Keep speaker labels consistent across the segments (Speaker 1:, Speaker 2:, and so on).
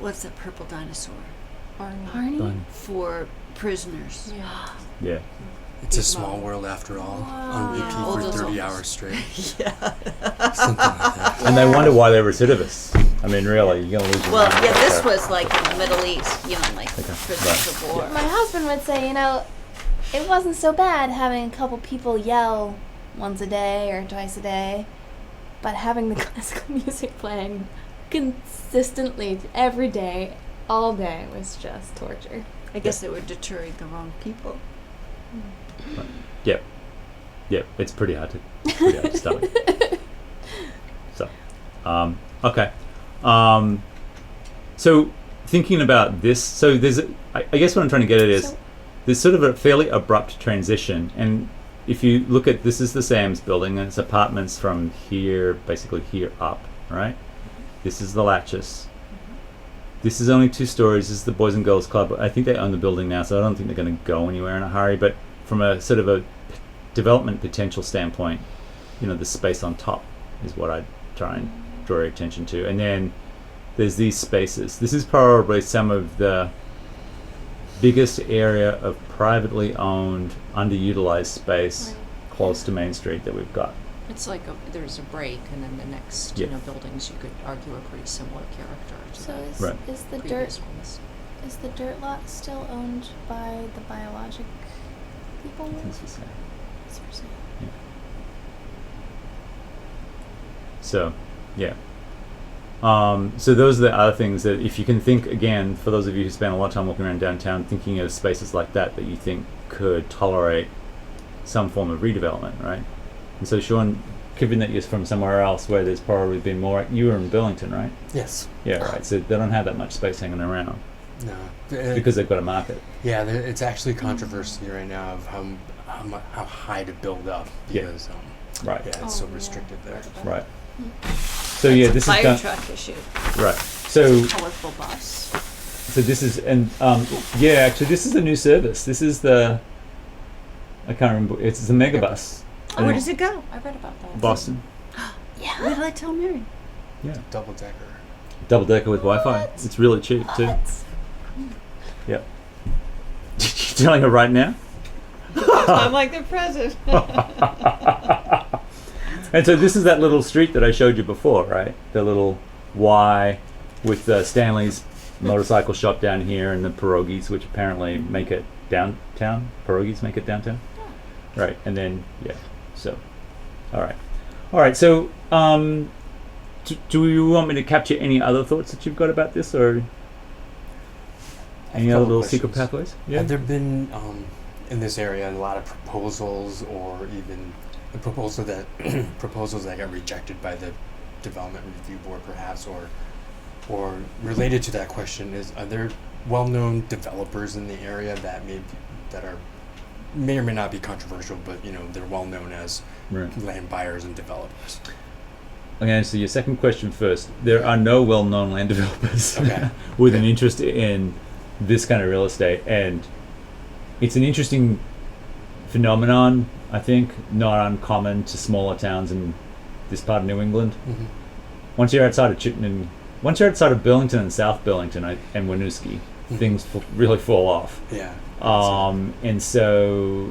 Speaker 1: what's that purple dinosaur
Speaker 2: Arnie.
Speaker 3: Arnie?
Speaker 4: Done.
Speaker 1: for prisoners?
Speaker 2: Yeah.
Speaker 4: Yeah.
Speaker 5: It's a small world after all. On repeat
Speaker 1: Wow. All
Speaker 5: for
Speaker 1: those
Speaker 5: 30
Speaker 1: old-
Speaker 5: hours straight. yeah. Something like that.
Speaker 4: And they wonder why they're recidivists. I mean, really, you're going to lose your
Speaker 1: Well,
Speaker 4: mind
Speaker 1: yeah, this
Speaker 4: there.
Speaker 1: was like in the Middle East, you know, like
Speaker 4: Okay,
Speaker 1: prisoners of war.
Speaker 3: My husband would say, you know, it wasn't so bad having a couple people yell once a day or twice a day, but having the classical music playing consistently every day, all day, was just torture.
Speaker 1: I guess they were deterring the wrong people. Oh,
Speaker 4: Yep. Yep, it's pretty hard to, pretty hard to stomach. So, um, okay. Um, so, thinking about this, so there's, a- I, I guess what I'm trying to get at is
Speaker 3: So-
Speaker 4: there's sort of a fairly abrupt transition. And if you look at this, is the Sam's building, and it's apartments from here, basically here up, right? This is the Latches. This is only two stories. This is the Boys and Girls Club. I think they own the building now, so I don't think they're going to go anywhere in a hurry. But from a sort of a p- development potential standpoint, you know, the space on top is what I try and draw your attention to. And then there's these spaces. This is probably some of the biggest area of privately owned, underutilized space close to Main Street that we've got.
Speaker 2: It's like a, there's a break, and then the next
Speaker 4: Yeah.
Speaker 2: you know buildings you could argue are pretty similar character to
Speaker 3: So
Speaker 2: the
Speaker 3: is,
Speaker 4: Right.
Speaker 3: is the
Speaker 2: previous
Speaker 3: dirt
Speaker 2: ones.
Speaker 3: is the dirt lot still owned by the biologic people?
Speaker 4: Things for sale.
Speaker 3: It's for sale.
Speaker 4: So, yeah. Um, so those are the other things that if you can think again, for those of you who spend a lot of time walking around downtown, thinking of spaces like that that you think could tolerate some form of redevelopment, right? And so Sean, given that you're from somewhere else where there's probably been more, you were in Burlington, right?
Speaker 5: Yes.
Speaker 4: Yeah, right. So they don't have that much space hanging around
Speaker 5: No. Th-
Speaker 4: because they've got a market.
Speaker 5: Yeah, there, it's actually a controversy right now of how m- how, mu- how high to build up
Speaker 4: Yeah.
Speaker 5: because um,
Speaker 4: Right.
Speaker 5: yeah, it's
Speaker 3: Oh,
Speaker 5: so
Speaker 3: yeah.
Speaker 5: restricted there.
Speaker 4: Right. So yeah, this is
Speaker 1: Fire
Speaker 4: done.
Speaker 1: truck issue.
Speaker 4: Right. So
Speaker 1: Colorful bus.
Speaker 4: So this is and um, yeah, actually this is a new service. This is the I can't remember. It's the Megabus.
Speaker 1: Oh, where does it go?
Speaker 2: I read about that.
Speaker 4: Boston.
Speaker 1: What did I tell Mary?
Speaker 4: Yeah.
Speaker 5: Double decker.
Speaker 4: Double decker with Wi-Fi.
Speaker 3: What?
Speaker 4: It's really cheap too.
Speaker 3: What?
Speaker 4: Yep. You're telling her right now.
Speaker 1: I'm like the president.
Speaker 4: And so this is that little street that I showed you before, right? The little Y with uh, Stanley's motorcycle shop down here and the pierogies, which apparently make it downtown. Pierogies make it downtown? Right. And then, yeah. So, all right. All right. So, um, do, do you want me to capture any other thoughts that you've got about this or any
Speaker 5: Couple
Speaker 4: other little secret
Speaker 5: questions.
Speaker 4: pathways?
Speaker 5: Have there been um, in this area a lot of proposals or even the proposal that proposals that got rejected by the development review board perhaps or or related to that question is are there well-known developers in the area that may that are may or may not be controversial but you know they're well known as
Speaker 4: Right.
Speaker 5: land buyers and developers
Speaker 4: I'm going to answer your second question first. There are no well known land developers
Speaker 5: Okay.
Speaker 4: with
Speaker 5: Okay.
Speaker 4: an interest in this kind of real estate. And it's an interesting phenomenon, I think, not uncommon to smaller towns in this part of New England.
Speaker 5: Mhm.
Speaker 4: Once you're outside of Chittenden, once you're outside of Burlington and South Burlington I, and Winooski,
Speaker 5: Mhm.
Speaker 4: things f- really fall off.
Speaker 5: yeah
Speaker 4: Um, and so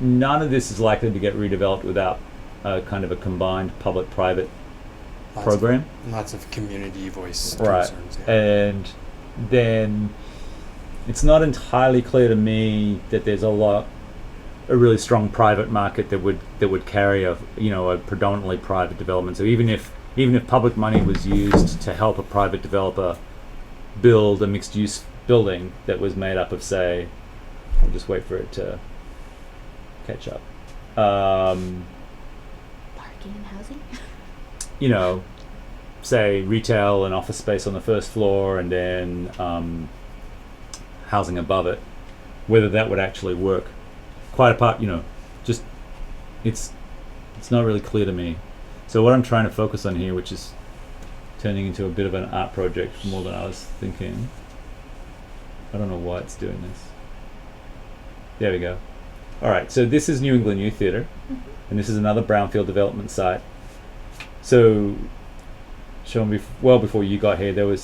Speaker 4: none of this is likely to get redeveloped without a kind of a combined public private
Speaker 5: Lots of-
Speaker 4: program.
Speaker 5: lots of community voice
Speaker 4: Right.
Speaker 5: concerns yeah.
Speaker 4: And then it's not entirely clear to me that there's a lot a really strong private market that would that would carry a you know a predominantly private development. So even if even if public money was used to help a private developer build a mixed use building that was made up of say I'll just wait for it to catch up. Um,
Speaker 3: Parking and housing.
Speaker 4: you know, say retail and office space on the first floor and then um, housing above it, whether that would actually work. Quite apart, you know, just it's it's not really clear to me. So what I'm trying to focus on here, which is turning into a bit of an art project more than I was thinking. I don't know why it's doing this. There we go. All right, so this is New England Youth Theatre, and this is another brownfield development site. So, Sean, bef- well before you got here, there was